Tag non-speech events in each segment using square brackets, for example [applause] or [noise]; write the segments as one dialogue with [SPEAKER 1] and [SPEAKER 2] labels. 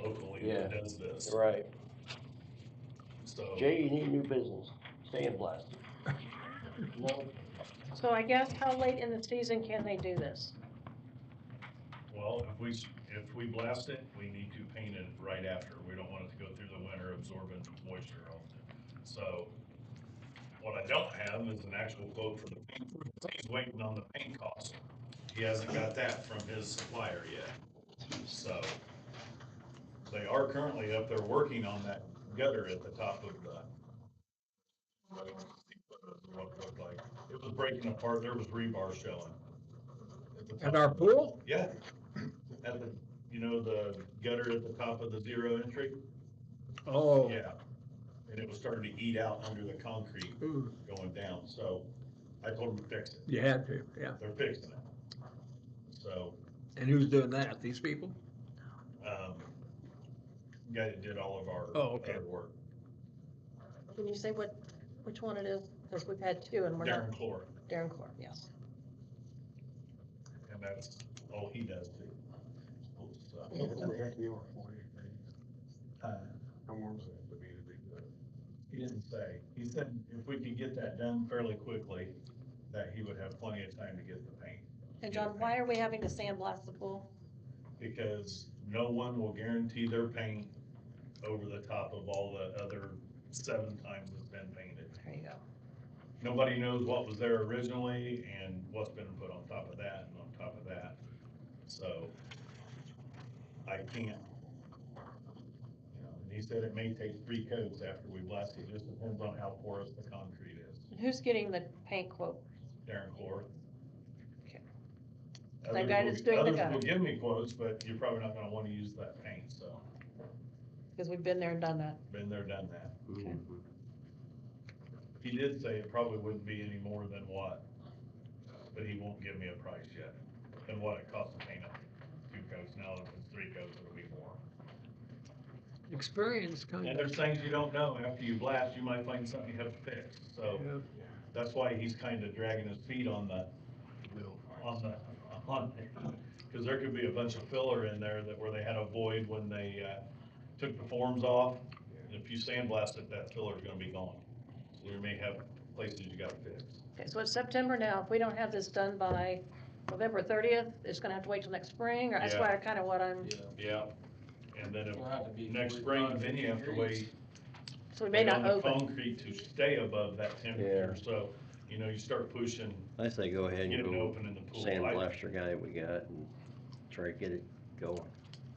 [SPEAKER 1] company
[SPEAKER 2] Yeah.
[SPEAKER 1] that does this,
[SPEAKER 2] Right.
[SPEAKER 1] so.
[SPEAKER 2] Jay, you need new business, sandblast. No,
[SPEAKER 3] So I guess how late in the season can they do this?
[SPEAKER 1] Well, if we, s- if we blast it, we need to paint it right after. We don't want it to go through the winter absorbent moisture on it. So what I don't have is an actual quote for the paint. He's waiting on the paint cost. He hasn't got that from his supplier yet. So they are currently up there working on that gutter at the top of the what it looked like. It was breaking apart. There was rebar showing. at the top.
[SPEAKER 4] At our pool?
[SPEAKER 1] Yeah, at the, you know, the gutter at the top of the zero entry?
[SPEAKER 4] Oh.
[SPEAKER 1] Yeah. And it was starting to eat out under the concrete
[SPEAKER 4] Ooh,
[SPEAKER 1] going down, so I told them to fix it.
[SPEAKER 4] You had to, yeah.
[SPEAKER 1] They're fixing it. So,
[SPEAKER 4] And who's doing that? These people?
[SPEAKER 1] um, guy that did all of our
[SPEAKER 4] Oh, okay.
[SPEAKER 1] other work,
[SPEAKER 3] Can you say what, which one it is? Because we've had two and we're not,
[SPEAKER 1] Darren Clore,
[SPEAKER 3] Darren Core, yes.
[SPEAKER 1] and that's all he does too. So, uh, He didn't say, he said if we could get that done fairly quickly, that he would have plenty of time to get the paint.
[SPEAKER 3] And John, why are we having to sandblast the pool?
[SPEAKER 1] because no one will guarantee their paint over the top of all the other seven times it's been painted.
[SPEAKER 3] There you go.
[SPEAKER 1] Nobody knows what was there originally and what's been put on top of that and on top of that. So I can't. you know, And he said it may take three coats after we blast it, just depends on how porous the concrete is.
[SPEAKER 3] And Who's getting the paint quote?
[SPEAKER 1] Darren Clore.
[SPEAKER 3] Okay.
[SPEAKER 1] Others
[SPEAKER 3] That guy
[SPEAKER 1] will-
[SPEAKER 3] that's doing the
[SPEAKER 1] Others
[SPEAKER 3] gutter.
[SPEAKER 1] will give me quotes, but you're probably not gonna wanna use that paint, so.
[SPEAKER 3] Because we've been there and done that.
[SPEAKER 1] Been there, done that.
[SPEAKER 3] Okay.
[SPEAKER 1] He did say it probably wouldn't be any more than what, but he won't give me a price yet, than what it costs to paint up two coats. Now if it's three coats, it'll be more.
[SPEAKER 4] Experience kind
[SPEAKER 1] And
[SPEAKER 4] of.
[SPEAKER 1] there's things you don't know. After you blast, you might find something you have to fix.
[SPEAKER 5] Oh.
[SPEAKER 1] So
[SPEAKER 4] Yeah.
[SPEAKER 1] that's why he's kind of dragging his feet on the, on the, on it. Cause there could be a bunch of filler in there that, where they had a void when they, uh, took the forms off. And if you sandblast it, that filler's gonna be gone. So you may have places you gotta fix.
[SPEAKER 3] Okay, so it's September now. If we don't have this done by November thirtieth, it's gonna have to wait till next spring, or that's why I kind of what I'm,
[SPEAKER 1] Yeah. And then
[SPEAKER 6] It'll have to be
[SPEAKER 1] if, next spring,
[SPEAKER 6] 45
[SPEAKER 1] then you have to
[SPEAKER 6] degrees.
[SPEAKER 1] wait.
[SPEAKER 3] so we may not
[SPEAKER 1] on the
[SPEAKER 3] open.
[SPEAKER 1] Concrete to stay above that temperature. So, you know, you start pushing,
[SPEAKER 5] I say go ahead and
[SPEAKER 1] getting it
[SPEAKER 5] go
[SPEAKER 1] open in the pool.
[SPEAKER 5] sand
[SPEAKER 1] I-
[SPEAKER 5] blaster guy we got and try to get it going.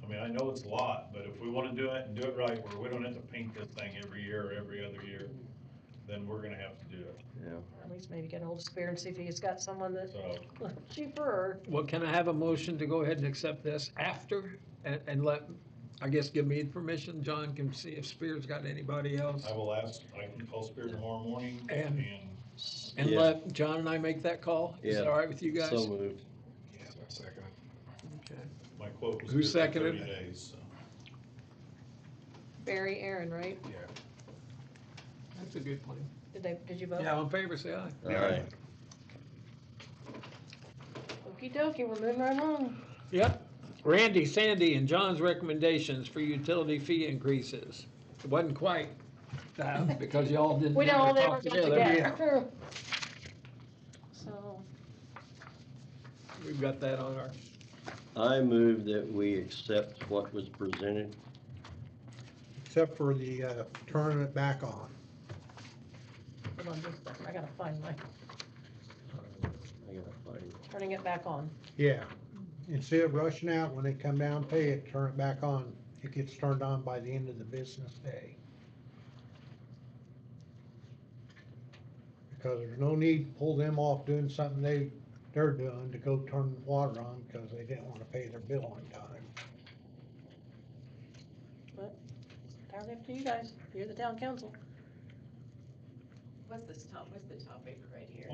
[SPEAKER 1] I mean, I know it's a lot, but if we wanna do it and do it right, where we don't have to paint this thing every year or every other year, then we're gonna have to do it,
[SPEAKER 5] Yeah.
[SPEAKER 3] At least maybe get a hold of Spear and see if he's got someone [laughs] that's
[SPEAKER 1] so.
[SPEAKER 3] cheaper or
[SPEAKER 4] Well, can I have a motion to go ahead and accept this after and, and let, I guess, give me permission? John can see if Spear's got anybody else.
[SPEAKER 5] Uh,
[SPEAKER 1] I will ask, I can call Spirit tomorrow morning
[SPEAKER 4] And-
[SPEAKER 1] and,
[SPEAKER 4] And
[SPEAKER 5] Yeah.
[SPEAKER 4] let John and I make that call? Is that
[SPEAKER 5] Yeah.
[SPEAKER 4] all right with you guys?
[SPEAKER 5] So moved.
[SPEAKER 4] Okay.
[SPEAKER 1] my quote was.
[SPEAKER 4] Who
[SPEAKER 1] good for
[SPEAKER 4] seconded?
[SPEAKER 1] 30 days, so.
[SPEAKER 3] Barry Aaron, right?
[SPEAKER 4] That's a good plan.
[SPEAKER 3] Did they, did you vote?
[SPEAKER 4] Yeah, all in favor, say aye.
[SPEAKER 5] All right.
[SPEAKER 3] Okey dokey, we're moving right along.
[SPEAKER 4] Yep. Randy, Sandy, and John's recommendations for utility fee increases. It wasn't quite, uh, because y'all didn't.
[SPEAKER 3] We don't all ever
[SPEAKER 4] talk
[SPEAKER 3] get
[SPEAKER 4] Yeah.
[SPEAKER 3] together. So,
[SPEAKER 4] We've got that on our,
[SPEAKER 5] I move that we accept what was presented.
[SPEAKER 7] except for the uh, turning it back on.
[SPEAKER 3] hold on just a second, I gotta find my,
[SPEAKER 5] I gotta find it.
[SPEAKER 3] turning it back on.
[SPEAKER 7] Yeah. Instead of rushing out, when they come down and pay it, turn it back on. It gets turned on by the end of the business day. Because there's no need to pull them off doing something they, they're doing to go turn the water on because they didn't want to pay their bill on time.
[SPEAKER 3] Entirely up to you guys, you're the town council.
[SPEAKER 8] What's this top, what's the topic right here?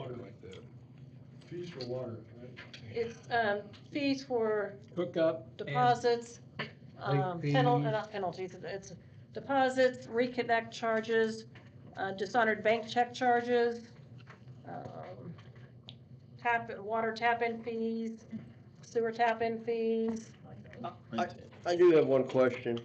[SPEAKER 6] Fees for water, right?
[SPEAKER 3] It's, um, fees for
[SPEAKER 4] hookup. and-
[SPEAKER 3] deposits, um,
[SPEAKER 7] Late
[SPEAKER 3] penal,
[SPEAKER 7] fees.
[SPEAKER 3] not penalties, it's deposits, reconnect charges, uh, dishonored bank check charges, um, tap, water tap-in fees, sewer tap-in fees.
[SPEAKER 5] I do have one question.